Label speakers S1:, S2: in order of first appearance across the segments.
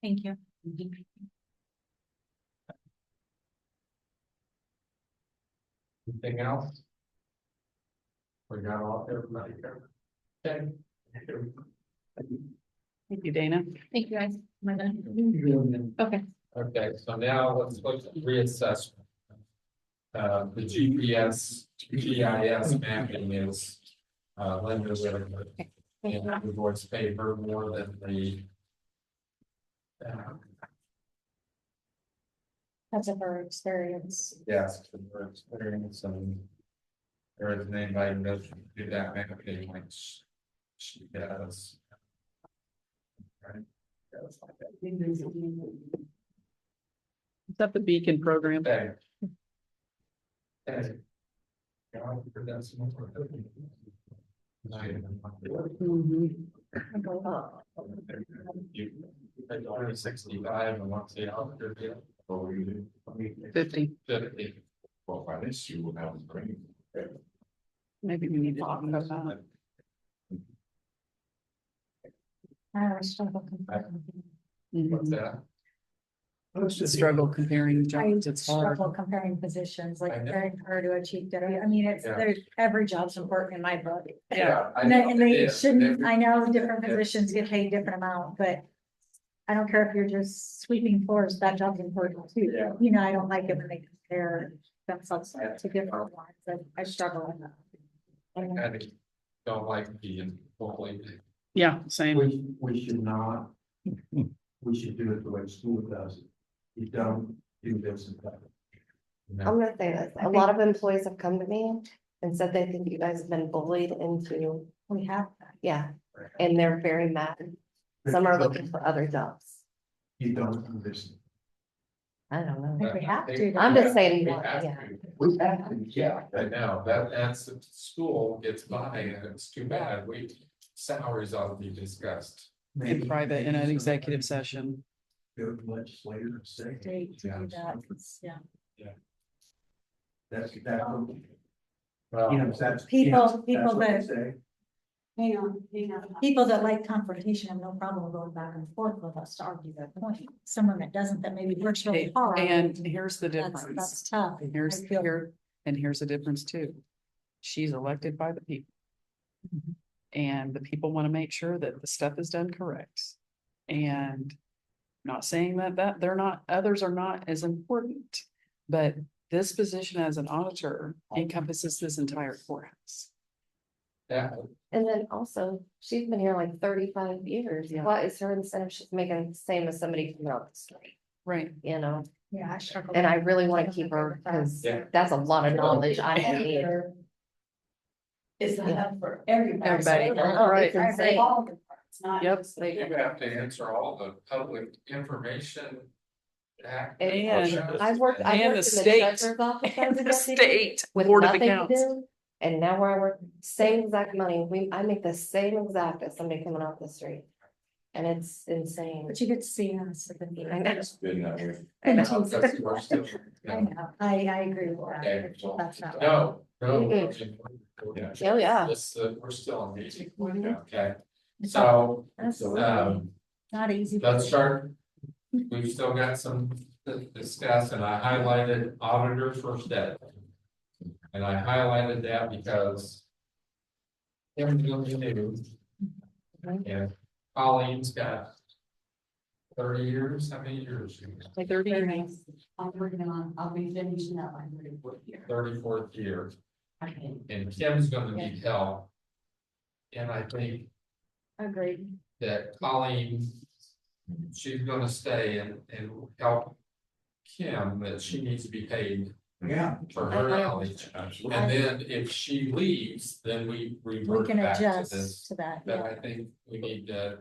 S1: Thank you.
S2: Anything else? We got all, everybody covered. Okay.
S3: Thank you, Dana.
S1: Thank you, guys. Am I done? Okay.
S2: Okay, so now let's look at reassessment. Uh, the GPS, GIS mapping is, uh, limited
S1: Thank
S2: in
S1: you.
S2: the board's favor more than the. uh,
S1: That's of our experience.
S2: Yes, for their experience and. There isn't anybody who doesn't do that mapping like sh- she does. Right? That's like that.
S3: Is that the beacon program?
S2: Okay. Okay. Yeah, I think that's more for the-
S3: Mhm.
S2: You- I don't have Sixty-five and one say how good they are.
S3: Fifty,
S2: Fifty.
S4: Well, by this, you will have a brain.
S3: maybe we need to talk about that.
S1: I struggle.
S2: What's
S1: Mm-hmm.
S3: Mhm.
S2: that?
S3: Struggle comparing
S1: I
S3: jobs, it's hard.
S1: struggle comparing positions,
S2: I
S1: like
S2: know.
S1: comparing her to a chief deputy. I mean, it's,
S2: Yeah.
S1: there's, every job's important in my book.
S2: I
S1: And they,
S2: know
S1: and
S2: it
S1: they
S2: is.
S1: shouldn't,
S2: Every-
S1: I know different
S2: Yeah.
S1: positions get paid different amount, but. I don't care if you're just sweeping floors, that job's important too.
S2: Yeah.
S1: You know, I don't like it when they compare themselves
S2: Yeah.
S1: to different ones, but I struggle with that. And
S2: I think don't like being bullied.
S3: Yeah, same.
S5: We, we should not, we should do it the way school does it. You don't do this and that.
S6: I'm gonna say this,
S1: I
S6: a lot of employees have come to me and said they think you guys have been bullied into,
S1: We have that.
S6: yeah, and they're very mad. Some are looking for other jobs.
S5: You don't listen.
S6: I don't know.
S1: If we have to.
S6: I'm just saying,
S2: We have
S6: yeah.
S2: to.
S5: We have to, yeah,
S2: I
S5: but
S2: know, that, that's, school gets by and it's too bad, we, salaries ought to be discussed.
S5: maybe-
S3: In private, in an executive session.
S5: Go to legislator and say,
S1: To to do that, yeah.
S5: that's, that's, what- you
S2: Well,
S5: know, that's.
S1: People-
S5: yes, that's
S1: people
S5: what they
S1: that-
S5: say.
S1: Hang on, hang on. People that like confrontation have no problem going back and forth with us to argue their point. Someone that doesn't, that maybe works really hard.
S3: And here's the
S1: That's,
S3: difference.
S1: that's tough.
S3: And here's
S1: I feel-
S3: here, and here's the difference too. She's elected by the people.
S1: Mm-hmm.
S3: And the people want to make sure that the stuff is done correct. And not saying that that they're not, others are not as important. But this position as an auditor encompasses this entire courthouse.
S2: that,
S6: And then also, she's been here like thirty-five years.
S3: Yeah.
S6: What is her incentive? She's making the same as somebody from out the street,
S3: Right.
S6: you know?
S1: Yeah, I struggle.
S6: And I
S1: with-
S6: really want to keep her because
S2: Yeah.
S6: that's a lot of knowledge I don't need.
S7: It's not for everybody.
S6: Everybody,
S7: So,
S6: all right.
S7: it's
S6: Insane.
S7: all the parts, not
S3: Yep.
S7: just
S2: you
S7: the-
S2: have to answer all the public information. act-
S6: And I worked,
S3: And the
S6: I worked in the
S3: state.
S6: treasurer's office. as a
S3: The
S6: deputy.
S3: state
S6: with
S3: Board of
S6: nothing to
S3: Accounts.
S6: do. And now where I work, same exact money, we, I make the same exact as somebody coming off the street. And it's insane.
S1: But you get to see us at the
S6: I
S1: meeting.
S6: know.
S4: It's been that way.
S6: I know.
S2: That's the worst of it.
S1: I
S2: No,
S1: know, I, I agree with that.
S2: Okay,
S1: It's tough that way.
S2: No, no.
S4: Yeah.
S6: Oh, yeah.
S2: This, uh, we're still on meeting,
S6: Mhm.
S2: okay, so,
S1: That's
S2: um,
S1: not easy.
S2: Let's start. We've still got some to discuss and I highlighted auditor first debt. And I highlighted that because. Everything we do. And Colleen's got. Thirty years, how many years?
S3: Like thirty
S7: Very
S3: years.
S7: nice. I'm working on, I'll be finishing up my third fourth year.
S2: Thirty fourth year,
S7: Okay.
S2: and Kim's gonna need help. And I think
S1: Agreed.
S2: that Colleen, she's gonna stay and, and help Kim, that she needs to be paid
S5: Yeah,
S2: for her
S6: Uh-huh.
S2: knowledge. And then if she leaves, then we
S1: We
S2: revert
S1: can
S2: back to
S1: adjust
S2: this.
S1: to that.
S2: But
S1: yeah.
S2: I think we need to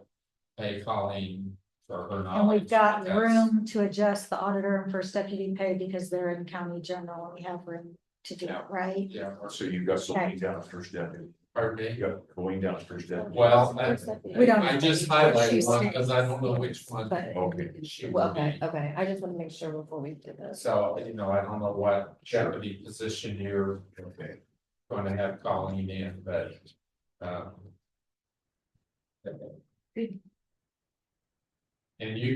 S2: pay Colleen for her knowledge.
S1: And we've got
S2: That's-
S1: room to adjust the auditor and first deputy pay because they're in county general, and we have room to do it,
S2: Yeah.
S1: right?
S2: Yeah,
S4: So you've got something down at first deputy,
S2: pardon
S4: you
S2: me.
S4: got going down at first deputy.
S2: Well, I,
S6: First deputy.
S1: We don't-
S2: I just
S1: She's
S2: highlighted one because I
S1: six.
S2: don't know which one
S6: But-
S4: Okay.
S2: she
S6: Well,
S2: will
S6: okay,
S2: be.
S6: okay, I just want to make sure before we do this.
S2: So, you know, I don't know what jeopardy position you're
S4: Okay.
S2: gonna have Colleen in, but, um. And you